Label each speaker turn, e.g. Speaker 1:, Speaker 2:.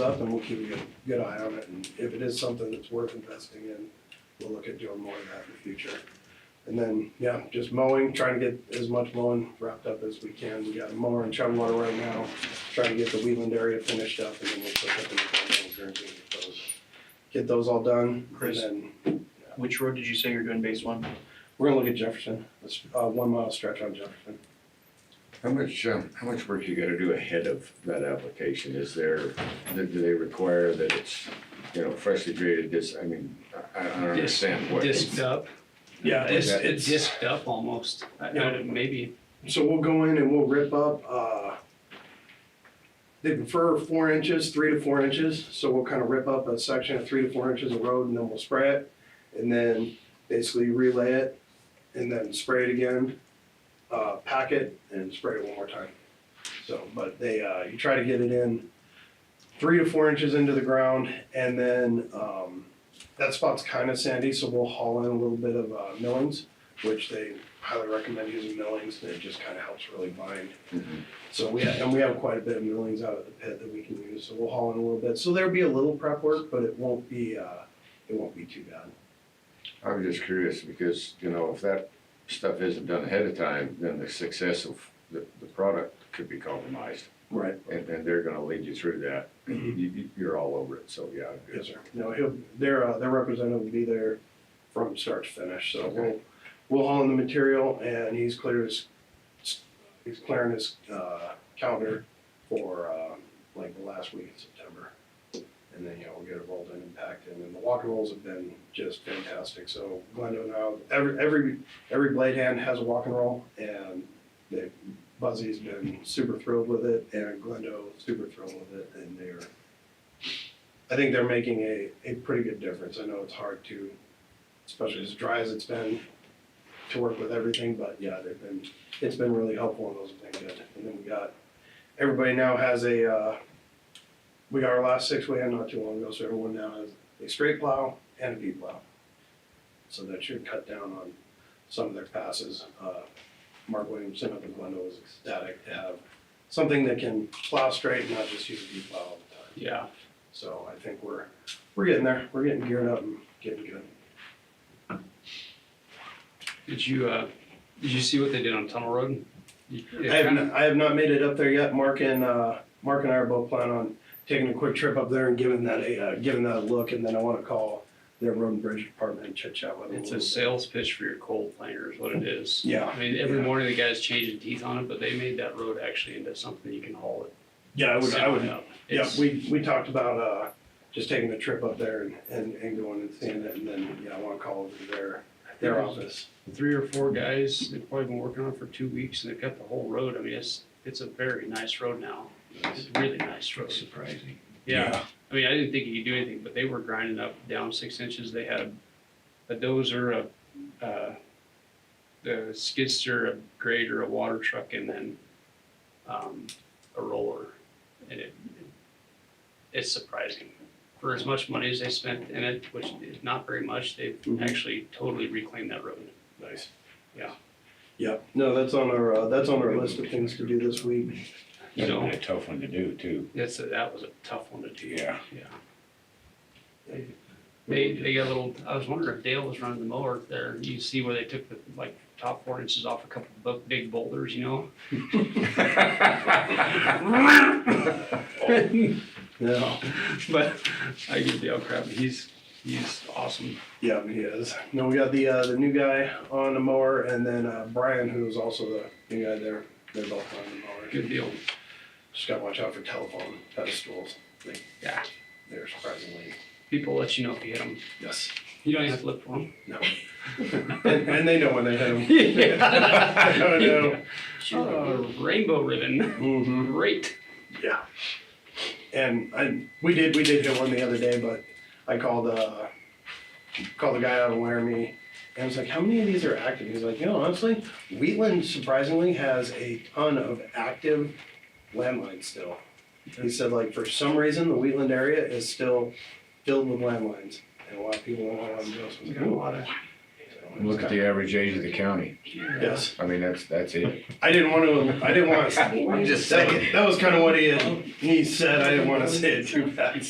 Speaker 1: up and we'll keep a good, good eye on it, and if it is something that's worth investing in, we'll look at doing more of that in the future. And then, yeah, just mowing, trying to get as much mowing wrapped up as we can, we got a mower in Chumwater right now, trying to get the Wheatland area finished up, and then we'll put up in the buildings and get those. Get those all done, and
Speaker 2: Chris.
Speaker 1: then
Speaker 2: Which road did you say you're doing base one?
Speaker 1: we're gonna look at Jefferson, It's uh, one mile stretch on Jefferson.
Speaker 3: How much, um, how much work you gotta do ahead of that application? Is there, do they require that it's, you know, freshly graded this, I mean, I, I don't
Speaker 4: Dis-
Speaker 3: understand what.
Speaker 4: Disced up.
Speaker 1: Yeah,
Speaker 3: it's- it's-
Speaker 4: Disced up almost. I, I, maybe,
Speaker 1: So we'll go in and we'll rip up, uh, they prefer four inches, three to four inches, so we'll kind of rip up a section of three to four inches of road and then we'll spray it. And then basically relay it and then spray it again, uh, pack it and spray it one more time. So, but they, uh, you try to get it in three to four inches into the ground and then, um, that spot's kind of sandy, so we'll haul in a little bit of, uh, millings, which they highly recommend using millings, and it just kind of helps really bind.
Speaker 3: Mhm.
Speaker 1: So we, and we have quite a bit of millings out of the pit that we can use, so we'll haul in a little bit. So there'll be a little prep work, but it won't be, uh, it won't be too bad.
Speaker 3: I was just curious because, you know, if that stuff isn't done ahead of time, then the success of the, the product could be compromised.
Speaker 1: Right.
Speaker 3: And, and they're gonna lead you through that. You,
Speaker 1: Mhm.
Speaker 3: you, you're all over it, so yeah.
Speaker 1: Yes, sir. No, he'll, their, uh, their representative will be there from start to finish, so we'll,
Speaker 3: Okay.
Speaker 1: we'll haul in the material and he's clear his, he's clearing his, uh, calendar for, um, like the last week in September. And then, you know, we'll get it rolled in and packed in, and the walk and rolls have been just fantastic, so Glendo now, every, every, every blade hand has a walk and roll and they, Buzzy's been super thrilled with it and Glendo super thrilled with it and they're I think they're making a, a pretty good difference. I know it's hard to, especially as dry as it's been, to work with everything, but yeah, they've been, it's been really helpful and those have been good. And then we got, everybody now has a, uh, we got our last six we had not too long ago, so everyone now has a straight plow and a V plow. So that should cut down on some of their passes. Uh, Mark Williamson up in Glendale was ecstatic to have something that can plow straight and not just use a V plow all the time.
Speaker 4: yeah.
Speaker 1: So I think we're, we're getting there, we're getting geared up and getting good.
Speaker 4: Did you, uh, did you see what they did on Tunnel Road? You- it
Speaker 1: I have,
Speaker 4: kinda-
Speaker 1: not- I have not made it up there yet, Mark and, uh, Mark and I are both planning on taking a quick trip up there and giving that a, uh, giving that a look, and then I wanna call their road and bridge department and chit chat with them.
Speaker 4: It's
Speaker 1: little
Speaker 4: a
Speaker 1: bit.
Speaker 4: sales pitch for your coal planer is what it is.
Speaker 1: Yeah,
Speaker 4: I mean, every
Speaker 1: Yeah.
Speaker 4: morning the guy's changing teeth on it, but they made that road actually into something you can haul it.
Speaker 1: yeah, I would, I would,
Speaker 4: up.
Speaker 1: yeah,
Speaker 4: It's-
Speaker 1: we, we talked about, uh, just taking a trip up there and, and, and going and seeing it, and then, yeah, I wanna call over their, their office.
Speaker 4: Three or four guys, they've probably been working on it for two weeks and they've got the whole road. I mean, it's, it's a very nice road now. It's a really nice road.
Speaker 5: Surprising.
Speaker 4: Yeah. I mean, I didn't think you could do anything, but they were grinding up down six inches. They had a dozer, a, uh, a skidster, a grader, a water truck, and then, um, a roller. And it, it's surprising. For as much money as they spent in it, which is not very much, they've
Speaker 1: Mhm.
Speaker 4: actually totally reclaimed that road.
Speaker 1: Nice.
Speaker 4: Yeah.
Speaker 1: Yep, no, that's on our, uh, that's on our list of things to do this week.
Speaker 4: You
Speaker 5: That's
Speaker 4: know,
Speaker 5: been a tough one to do too.
Speaker 4: that's, that was a tough one to do.
Speaker 5: Yeah.
Speaker 4: Yeah. They, they got a little, I was wondering if Dale was running the mower there, you see where they took the, like, top four inches off a couple of bu- big boulders, you know?
Speaker 1: Yeah.
Speaker 4: But I give Dale crap, he's, he's awesome.
Speaker 1: Yeah, he is. No, we got the uh, the new guy on the mower, and then uh, Brian, who is also the new guy there. They're both on the mower.
Speaker 4: Good deal.
Speaker 1: Just gotta watch out for telephone pedestals. They,
Speaker 4: Yeah,
Speaker 1: they're surprisingly
Speaker 4: people let you know if you hit them.
Speaker 1: yes.
Speaker 4: You don't even have to look for them.
Speaker 1: No. and, and they know when they hit them. I don't know.
Speaker 4: Oh, rainbow ribbon,
Speaker 1: Mm-hmm.
Speaker 4: great.
Speaker 1: Yeah. And I we did we did hit one the other day, but I called uh called the guy out of Laramie and I was like, How many of these are active? He's like, You know, honestly, Wheatland surprisingly has a ton of active landlines still.
Speaker 3: Hmm.
Speaker 1: He said like for some reason the Wheatland area is still filled with landlines and a lot of people don't know how to do it. So I was like, "Oh."
Speaker 4: of.
Speaker 1: So
Speaker 3: Look at the average age of the county.
Speaker 1: Yes,
Speaker 3: I mean, that's, that's it.
Speaker 1: I didn't want to, I didn't want to.
Speaker 3: I'm just
Speaker 1: That was kind of what he, had- he said, I didn't want to say it too fast.